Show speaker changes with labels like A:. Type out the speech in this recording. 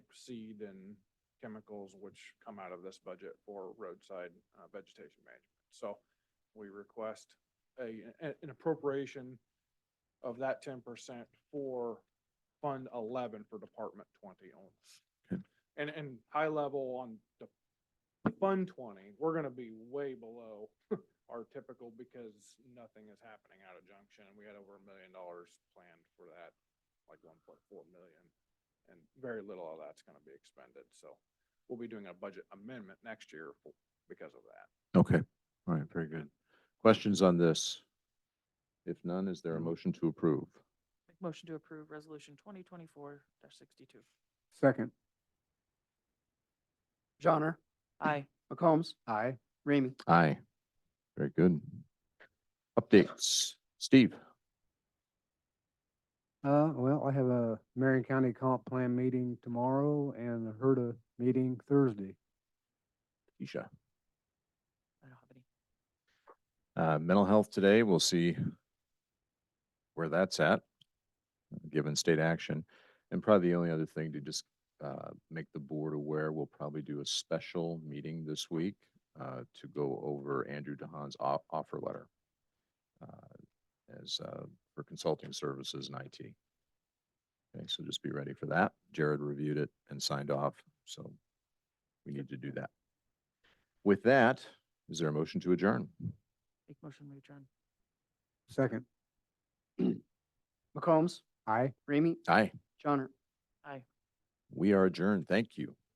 A: seed and chemicals, which come out of this budget for roadside uh, vegetation management. So we request a, a- an appropriation of that ten percent for Fund eleven for Department twenty only.
B: Okay.
A: And, and high level on the Fund twenty, we're gonna be way below our typical because nothing is happening out of Junction. And we had over a million dollars planned for that, like one point four million. And very little of that's gonna be expended, so we'll be doing a budget amendment next year for- because of that.
B: Okay, all right, very good. Questions on this? If none, is there a motion to approve?
C: Make motion to approve resolution twenty twenty-four sixty-two.
D: Second. Johnner?
C: Aye.
D: McCombs? Aye. Ramey?
B: Aye. Very good. Updates. Steve?
D: Uh, well, I have a Marion County Comp Plan meeting tomorrow and a HERDA meeting Thursday.
B: Keisha?
C: I don't have any.
B: Uh, mental health today, we'll see where that's at, given state action. And probably the only other thing to just, uh, make the board aware, we'll probably do a special meeting this week, uh, to go over Andrew DeHaan's o- offer letter. uh, As, uh, for consulting services and IT. Okay, so just be ready for that. Jared reviewed it and signed off, so we need to do that. With that, is there a motion to adjourn?
C: Make motion we adjourn.
D: Second. McCombs? Aye. Ramey?
B: Aye,
D: Johnner?
C: Aye.
B: we are adjourned. Thank you.